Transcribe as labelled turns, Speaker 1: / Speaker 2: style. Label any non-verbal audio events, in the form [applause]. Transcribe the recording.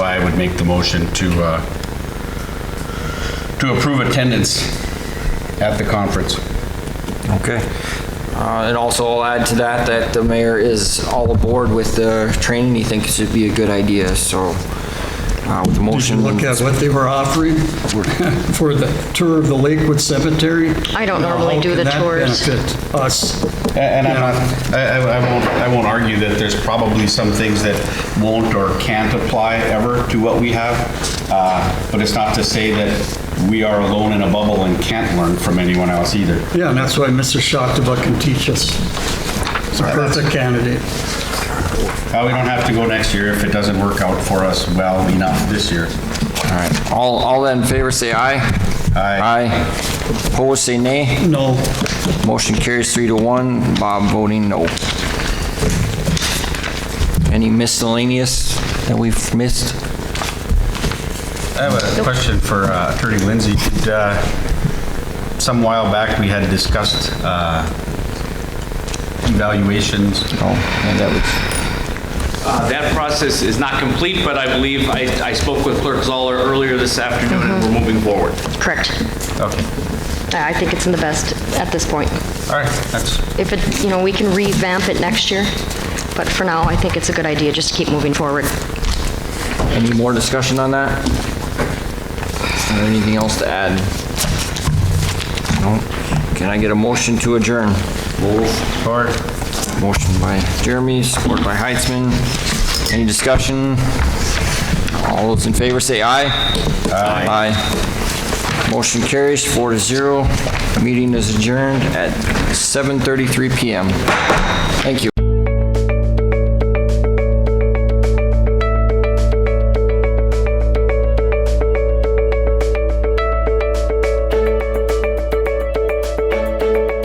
Speaker 1: would make the motion to, uh, to approve attendance at the conference.
Speaker 2: Okay. Uh, And also, I'll add to that, that the mayor is all aboard with the training. He thinks it'd be a good idea, so uh, with the
Speaker 3: Did you
Speaker 2: motion.
Speaker 3: look at what they were offering [laughs] for the tour of the Lakewood Cemetery?
Speaker 4: I don't normally do the tours.
Speaker 3: How can that benefit us?
Speaker 1: A- And I'm not, I, I I won't, I won't argue that there's probably some things that won't or can't apply ever to what we have. uh, But it's not to say that we are alone in a bubble and can't learn from anyone else either.
Speaker 3: Yeah, and that's why Mr. Shocktober can teach us. He's a perfect candidate.
Speaker 1: Uh, we don't have to go next year if it doesn't work out for us well enough this year.
Speaker 2: All right. All, all in favor, say aye.
Speaker 1: Aye.
Speaker 2: Aye. Opposed, say nay.
Speaker 3: No,
Speaker 2: Motion carries three to one. Bob voting no. Any miscellaneous that we've missed?
Speaker 1: I have a question for uh, Attorney Lindsay. Did, uh, Some while back, we had discussed uh, evaluations.
Speaker 2: No, and that was,
Speaker 5: Uh, That process is not complete, but I believe, I I spoke with Clerk Zoller earlier this afternoon, and we're moving forward.
Speaker 4: Correct.
Speaker 1: Okay,
Speaker 4: I I think it's in the best at this point.
Speaker 1: all right, that's,
Speaker 4: If it, you know, we can revamp it next year, but for now, I think it's a good idea just to keep moving forward.
Speaker 2: any more discussion on that? Is there anything else to add? No? Can I get a motion to adjourn?
Speaker 1: forward.
Speaker 2: Motion by Jeremy, support by Heitzman. Any discussion? All those in favor say aye.
Speaker 1: Aye.
Speaker 2: Aye. Motion carries four to zero. Meeting is adjourned at 7:33 PM. Thank you.